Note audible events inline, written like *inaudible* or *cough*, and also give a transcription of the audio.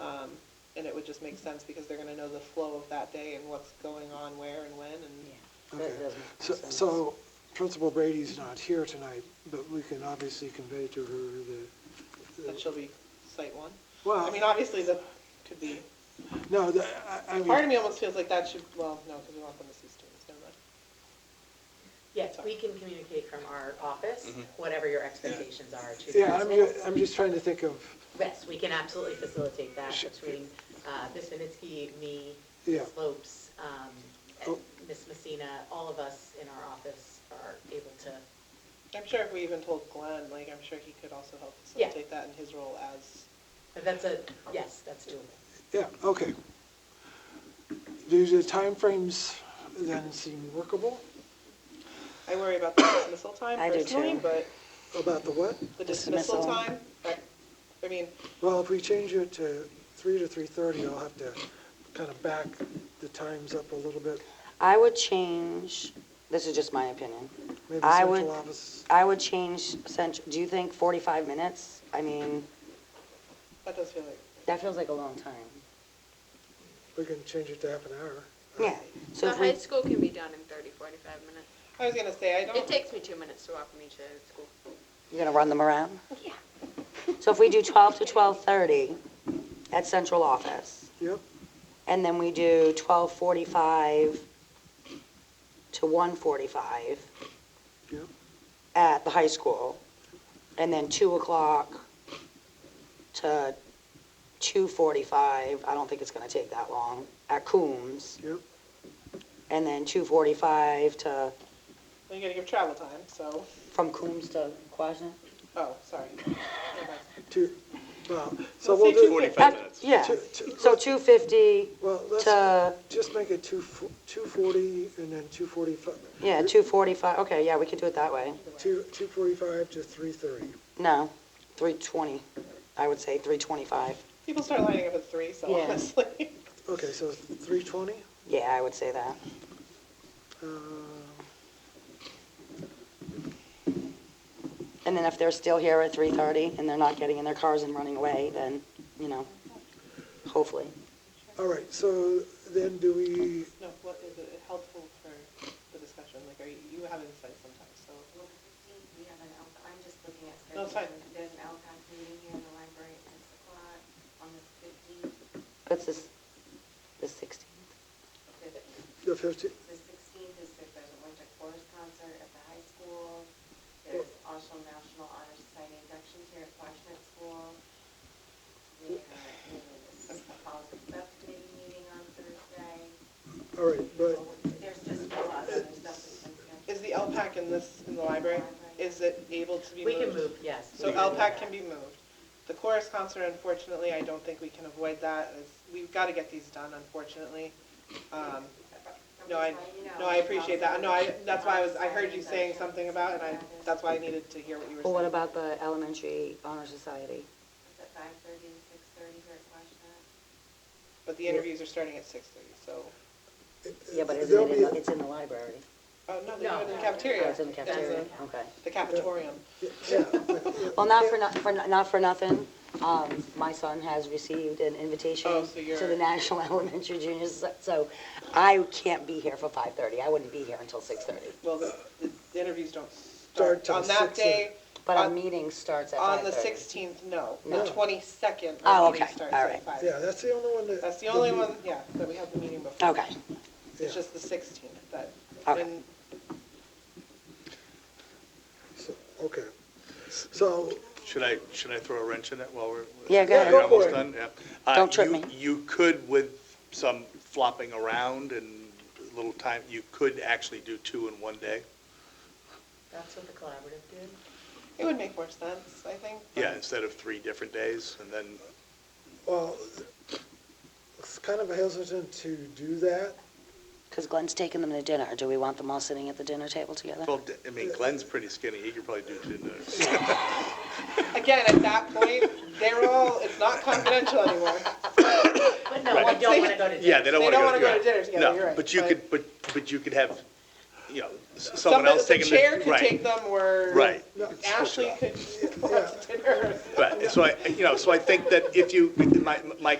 Um, just makes sense because they're gonna know the flow of that day and what's going on where and when and. Okay. That doesn't make So- sense. So Principal Brady's not here tonight, but we can obviously convey to her the- That the, shall be site one. I well, mean, obviously, that could be, no, the- I- part I of mean, me almost feels like that should, well, no, because we want them to see students, never mind. Yes, we can communicate from our office, Mm-hmm. whatever your expectations are to yeah, uh, I'm, participants. ju- I'm just trying to think of, Yes, we can absolutely facilitate that Sh- between uh, Ms. Vinitsky, me, Yeah. Slopes, um, and Oh. Ms. Messina, all of us in our office are able to, I'm sure if we even told Glenn, like, I'm sure he could also help Yeah. facilitate that in his role as, but that's a, yes, that's doable. yeah, okay. Do the timeframes then seem workable I worry about the dismissal time I do personally, too. but about the what? the dismissal Dismissal. time, I, I mean, Well, if we change it to three to three-thirty, I'll have to kind of back the times up a little bit. I would change, this is just my opinion. Maybe I central would- office, I would change, cent- do you think 45 minutes? I mean, that does feel like, that feels like a long time. we can change it to half an hour. Yeah. So The if we, high school can be done in 30, 45 minutes. I was gonna say, I It don't, takes me two minutes to walk from each end of school. you're going to run them around? Yeah. So if we do 12 to 12:30 at central office, Yep, and then we do 12:45 to 1:45 yep, at the high school, and then 2 o'clock to 2:45, I don't think it's going to take that long, at Coombs, yep. and then 2:45 to, you're gonna give travel time, so, from Coombs to Quasna? oh, sorry. Two, well, so Let's say we'll do, 45 minutes. Yeah, Two- two- so 2:50 well, let's to, just make it two, two forty and then two forty-five, yeah, 2:45, okay, yeah, we could do it that way. two, two forty-five to three thirty. No, 3:20, I would say 3:25. People start lining up at three, so Yeah. honestly, *laughs* Okay, so three twenty? Uh, Yeah, I would say that. And then if they're still here at 3:30 and they're not getting in their cars and running away, then, you know, hopefully. All right, so then do we, no, what is it helpful for the discussion, like, are you, you have insight sometimes, so. We have an, Al- I'm just looking at. No, it's fine. scheduling. There's an Alcon meeting here in the library at six o'clock on the fifteenth, What's this, the 16th? the the fifteen, sixteenth is if there's a winter chorus concert at the high school. There's also National Honor Society inductions here at Quashnet School. We have a policy subcommittee meeting on Thursday. all right, but, There's just a lot, there's nothing. Is the LPAC in this, in the library, is it able to be We moved? can move, yes. So LPAC can be moved. The chorus concert, unfortunately, I don't think we can avoid that. It's- We've got to get these done, unfortunately. Um, No, I, no, I appreciate that. No, I, that's why I was, I heard you saying something about, it, and I, that's why I needed to hear what you were saying. Well, what about the Elementary Honor Society? It's at five thirty and six thirty here at Quashnet. But the interviews are starting at six thirty, so, Yeah, but There'll isn't it, be- in the- it's in the library? oh, no, they do it in the cafeteria. Oh, it's in the There's a- cafeteria, okay. The cafetorium. Well, not for, not for, not for nothing, um, my son has received an invitation Oh, so you're- to the National *laughs* Elementary Junior, Soc- so I can't be here for 5:30, I wouldn't be here until 6:30. Well, the, the interviews don't start. Start till On that 6:00. day, But our On- meeting starts at 5:30. on the sixteenth, no. The No. twenty-second, Oh, our meeting okay. starts All at right. five. yeah, that's the only one that. That's the only one, yeah, that we have the meeting before. Okay, Yeah. It's just the 16th, but, Okay. and So- Okay, so, Should I, should I throw a wrench in it while we're? Yeah, go ahead. You're Go for almost it. done, yeah. Uh, Don't trip you- me. You could, with some flopping around and a little time, you could actually do two in one day. That's what the collaborative did. it would make more sense, I think. but- Yeah, instead of three different days, and then well, it's kind of hesitant to do that. because Glenn's taking them to dinner, do we want them all sitting at the dinner table together? Well, d- I mean, Glenn's pretty skinny, he could probably do *laughs* two dinners. Again, at that point, they're all, it's not confidential anymore. But no, we don't want *laughs* to go to. Yeah, they don't They don't want to go wanna to. go to dinner together, you're No, right, but you but- could, but, but you could have, you know, s- *laughs* someone else Somebody- taking The the. chair could right, take them, or. Right. Ashley could go out to dinner. Right, so I, you know, so I think that if you, my, my